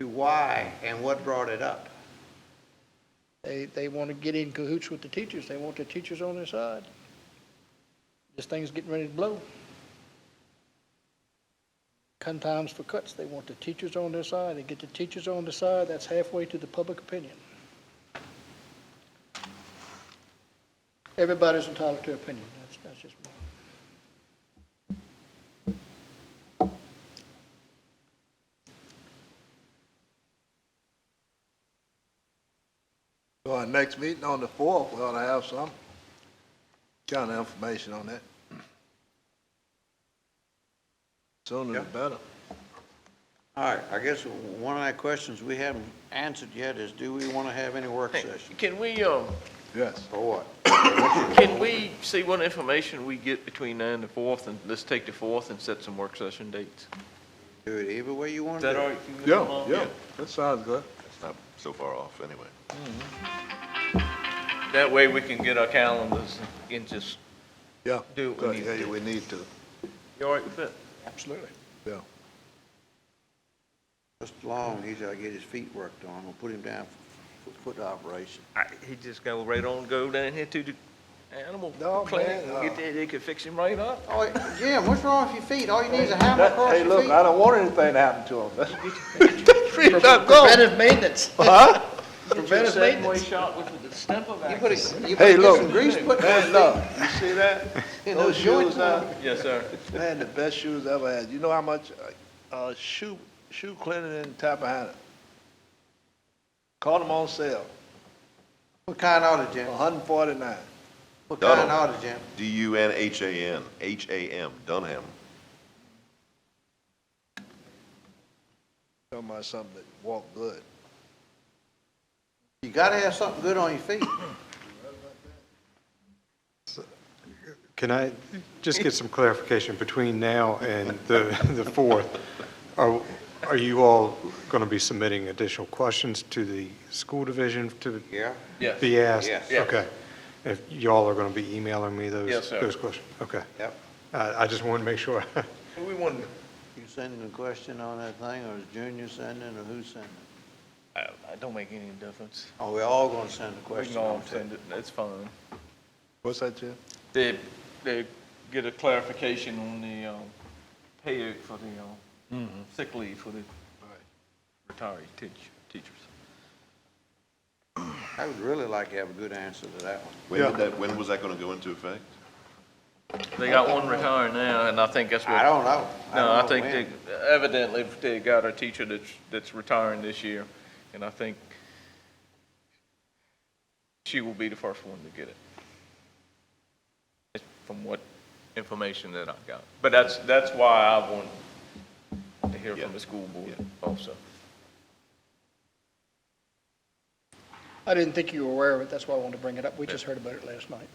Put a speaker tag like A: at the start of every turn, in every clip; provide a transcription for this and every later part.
A: why and what brought it up?
B: They, they want to get in cahoots with the teachers. They want the teachers on their side. This thing's getting ready to blow. Cut times for cuts. They want the teachers on their side. They get the teachers on their side. That's halfway to the public opinion. Everybody's entitled to opinion. That's, that's just me.
C: Well, our next meeting on the fourth, we ought to have some kind of information on that. Sooner the better.
A: All right, I guess one of the questions we haven't answered yet is, do we want to have any work session?
D: Can we, um,
C: Yes.
A: Or what?
D: can we see what information we get between now and the fourth, and let's take the fourth and set some work session dates?
A: Do it either way you want
D: Is
A: to
D: that
A: do
D: all
A: it.
D: right? with you, Mr.
C: Yeah,
D: Long?
C: yeah, that sounds good.
E: It's not so far off, anyway.
D: That way we can get our calendars and just,
C: Yeah.
D: Do what we
C: Good,
D: need
C: yeah,
D: to do.
C: We need to,
D: you all right with that?
B: Absolutely.
C: yeah.
A: Mr. Long, he's got to get his feet worked on. We'll put him down for foot- foot operation.
D: I, he just go right on, go down here to the animal
C: No,
D: clinic,
C: man,
D: and
C: uh,
D: get there, they could fix him right up.
A: Oh, Jim, what's wrong with your feet? All you need is a hammer
C: That-
A: across
C: Hey,
A: your
C: look,
A: feet.
C: I don't want anything to happen to him.
B: Preventive maintenance.
C: Huh?
B: Preventive
D: Way
B: maintenance.
D: shot with the step of
A: You
D: it.
A: put a, you
C: Hey,
A: put
C: look.
A: some grease put
C: Man,
A: on
C: look, you see that?
A: in
C: Those
A: those joints.
C: shoes uh, now,
D: Yes, sir.
C: man, the best shoes I ever had. You know how much, uh, uh, shoe, shoe cleaning in Tappahannock? Caught them on sale,
A: What kind ought it, Jim?
C: hundred and forty-nine.
A: What
E: Donald.
A: kind ought it, Jim?
E: D-U-N-H-A-N, H-A-M, Dunham.
C: Talking about something that walk good.
A: You got to have something good on your feet.
F: Can I just get some clarification between now and the, the 4th? Are, are you all going to be submitting additional questions to the school division to
A: Yeah.
D: Yes.
F: be asked?
A: Yes.
D: Yes.
F: Okay. If y'all are going to be emailing me those?
D: Yes, sir.
F: Those questions? Okay.
A: Yep.
F: I, I just wanted to make sure.
D: We want,
A: You sending a question on that thing, or is Junior sending, or who's sending?
D: I, I don't make any difference.
A: Oh, we all going to send a
D: We
A: question
D: can all
A: on it.
D: send it, that's fine.
C: What's that, Jim?
D: They, they get a clarification on the, um, pay for the, um, sick leave for the retiree teach, teachers.
A: I would really like to have a good answer to that one.
E: When did that, when was that gonna go into effect?
D: They got one retiring now, and I think that's what.
A: I don't know.
D: No,
A: don't
D: I
A: know
D: think
A: when.
D: they, evidently, they got a teacher that's, that's retiring this year, and I think she will be the first one to get it. It's From what information that I got. But that's, that's why I want to hear from the school board also.
B: I didn't think you were aware of it. That's why I wanted to bring it up. We just heard about it last night.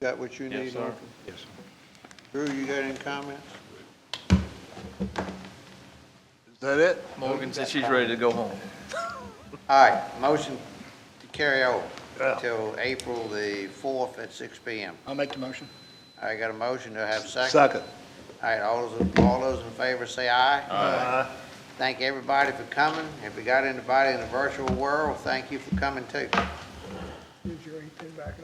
A: Got what you need,
D: Yes, sir.
A: Arthur? Yes, sir. Drew, you got any comments?
C: Is that it?
D: Morgan said she's ready to go home.
A: All right, motion to carry over
C: Yeah.
A: till April the 4th at six PM.
B: I'll make the motion.
A: I got a motion to have a second.
C: Second.
A: All right, all those, all those in favor say aye. Aye. Thank everybody for coming. If we got anybody in the virtual world, thank you for coming too.
B: Use your 18 back and